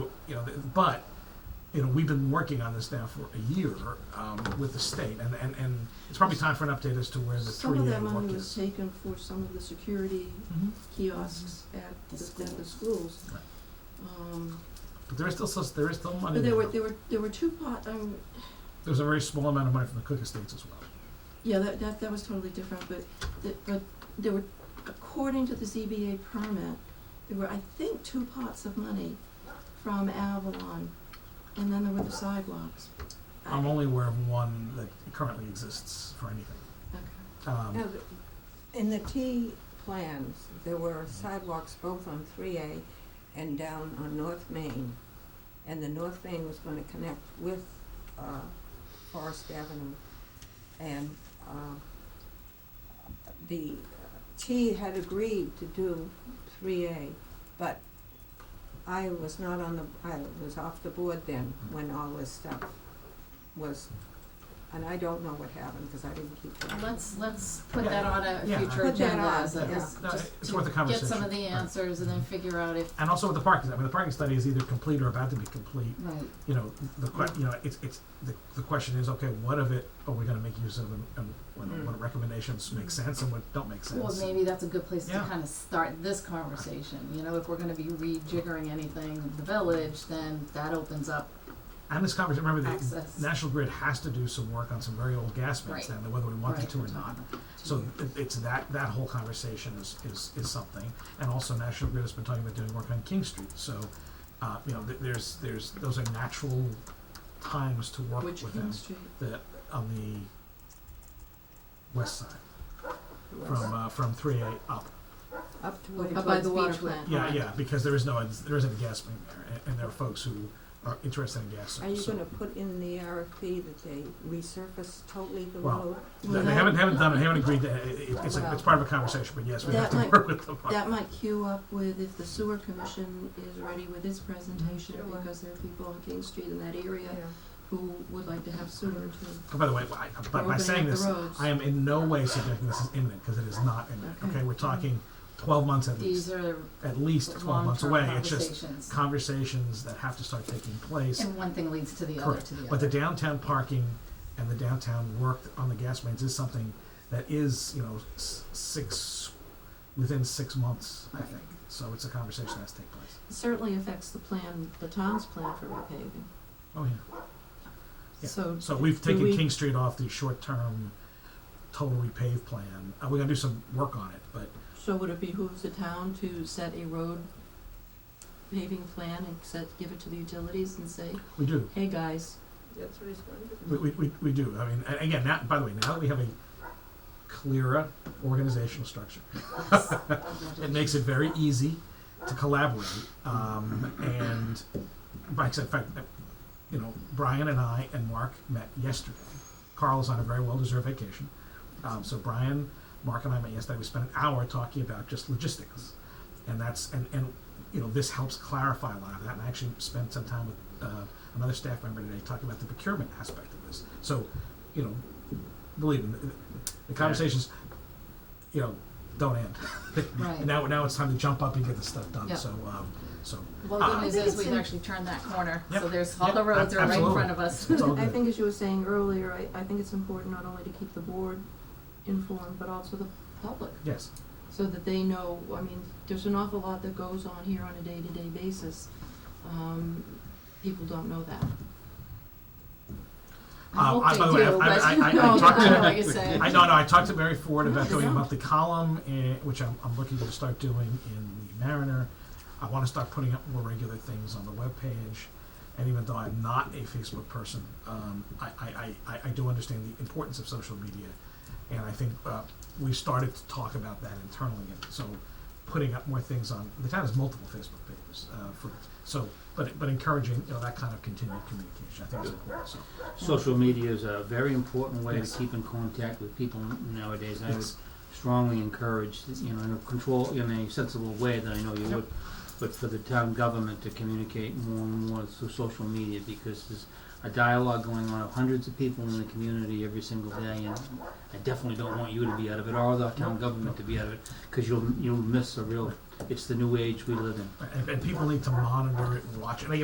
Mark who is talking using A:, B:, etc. A: But, you know, we've been working on this now for a year um, with the state, and, and, and it's probably time for an update as to where the
B: Some of
A: three-year
B: that
A: look
B: money was
A: is.
B: taken for some of the security
A: Mhm.
B: kiosks at the, at the schools.
A: Right. uh,
B: Um,
A: But there is still, sus- there is still money
B: but there were,
A: there.
B: there were, there were two pot, um,
A: There's a very small amount of money from the Cook Estates as well.
B: yeah, that, that, that was totally different, but, the- but there were, according to the ZBA permit, there were, I think, two pots of money from Avalon, and then there were the sidewalks. I-
A: I'm only aware of one that currently exists for anything.
B: Okay.
A: Um,
C: No, the- in the T plans, there were sidewalks both on three A and down on North Main. And the North Main was gonna connect with, uh, Forest Avenue. And, uh, the T had agreed to do three A, but I was not on the, I was off the board then when all this stuff was, and I don't know what happened, cause I didn't keep track. of it.
D: Let's, let's put
A: Yeah.
D: that on a
A: Yeah.
D: future
C: Put that
D: agenda,
C: on,
D: as
A: yeah.
D: a- as
B: Oh,
A: No,
D: just
A: uh, it's
D: to
A: worth a
D: get some
A: conversation.
D: of the
A: Right.
D: answers and then figure out if,
A: and also with the parking, I mean, the parking study is either complete or about to be complete.
D: right,
A: You know, the que- you know, it's, it's, the, the question is, okay, what of it are we gonna make use of and, and what, what recommendations make sense and what don't make sense?
D: Hmm. well, maybe that's a good place to
A: Yeah.
D: kind of start this conversation, you know, if we're gonna be rejiggering anything in the village, then that opens up
A: And this conversation, remember, the
D: access.
A: National Grid has to do some work on some very old gas mains
D: Right.
A: down there, whether we want
D: Right, Hmm.
A: it to or
D: we're
A: not.
D: talking about that
A: So
D: too.
A: it, it's that, that whole conversation is, is, is something, and also National Grid has been talking about doing work on King Street, so, uh, you know, th- there's, there's, those are natural times to work with
B: Which
A: them.
B: King Street?
A: The, on the west side, from, uh, from three A up,
C: Up to
D: Up
C: where.
B: Up by
D: towards
B: the water
D: Beechwood.
B: plant.
A: yeah,
D: Right.
A: yeah, because there is no, there isn't a gas main there, and, and there are folks who are interested in gas,
C: Are you
A: so-
C: gonna put in the RFP that they resurface totally the
A: Well,
C: road?
A: They they haven't, haven't done it, haven't agreed to, it, it- it's, a-
C: Well-
A: it's part of a conversation, but yes, we have
B: That
A: to
B: might-
A: work with them on
B: That might queue up with if the sewer commission is ready with its presentation,
C: Sure.
B: because there are people on King Street in that area who would like to have sewer to,
A: Oh, By the way, I,
B: or
A: by, by
B: opening
A: saying
B: up
A: this,
B: the roads.
A: I am in no way suggesting this is imminent because it is not imminent.
B: Okay.
A: Okay, we're talking 12 months at
D: These
A: least,
D: are
A: at least 12 months
D: long-term
A: away. It's just
D: conversations,
A: conversations that have to start taking place.
D: and one thing leads to the other,
A: Correct.
D: to the other.
A: But the downtown parking and the downtown work on the gas mains is something that is, you know, s- six within six months, I
D: Right.
A: think. So it's a conversation that has to take place.
B: It Certainly affects the plan, the town's plan for repaving,
A: Oh yeah. Yeah.
B: so.
A: So we've
B: do
A: taken
B: we-
A: King Street off the short-term total repave plan. Uh, we're gonna do some work on it, but
B: So would it behoove the town to set a road paving plan and set, give it to the utilities and say,
A: we do.
B: hey, guys,
C: That's what he's gonna do.
A: We, we, we, we do. I mean, a- again, now, by the way, now that we have a clearer organizational structure, it makes it very easy to collaborate. Um, and, by in fact, uh, you know, Brian and I and Mark met yesterday. Carl's on a very well-deserved vacation. Um, so Brian, Mark and I met yesterday. We spent an hour talking about just logistics. And that's, and, and, you know, this helps clarify a lot of that. And I actually spent some time with, uh, another staff member today talking about the procurement aspect of this. So, you know, believe me, the- the conversations, you know, don't end.
D: Right.
A: Now, now it's time to jump up and get this stuff done.
D: Yeah.
A: So, um, so
D: Well, the
A: Ah.
D: good news
B: I think
D: is
B: it's
D: we've
B: in-
D: actually turned that corner, so
A: Yep.
D: there's, all
A: Yep.
D: the roads
A: Ab-
D: are right in
A: absolutely.
D: front of us.
A: it's all
B: I
A: good.
B: think as you were saying earlier, I, I think it's important not only to keep the board informed, but also the public.
A: Yes.
B: so that they know, I mean, there's an awful lot that goes on here on a day-to-day basis. Um, people don't know that.
D: I
A: Um,
D: hope
A: I-
D: they
A: by the way,
D: do,
A: I- I-
D: but-
A: I- I- I
D: No,
B: talked
D: I
B: to-
D: know what you're saying.
A: I know, no, I talked to Mary Ford about
B: No,
A: doing a
B: no.
A: monthly column, eh, which I'm, I'm looking to start doing in the Mariner. I wanna start putting up more regular things on the webpage, and even though I'm not a Facebook person, um, I, I, I, I- I do understand the importance of social media. And I think, uh, we started to talk about that internally, and so putting up more things on, the town has multiple Facebook pages, uh, for, so, but, but encouraging, you know, that kind of continued communication, I think is important, so.
E: Social media is a very important way
A: Yes.
E: to keep in contact with people nowadays. I
A: Yes.
E: would strongly encourage, you know, in a control, in a sensible way that I know you
A: Yep.
E: would, but for the town government to communicate more and more through social media because there's a dialogue going on of hundreds of people in the community every single day, and I definitely don't want you to be out of it or the town government to be out of it because you'll you'll miss a real. It's the new age we live in.
A: And, and people need to monitor it and watch it. And again,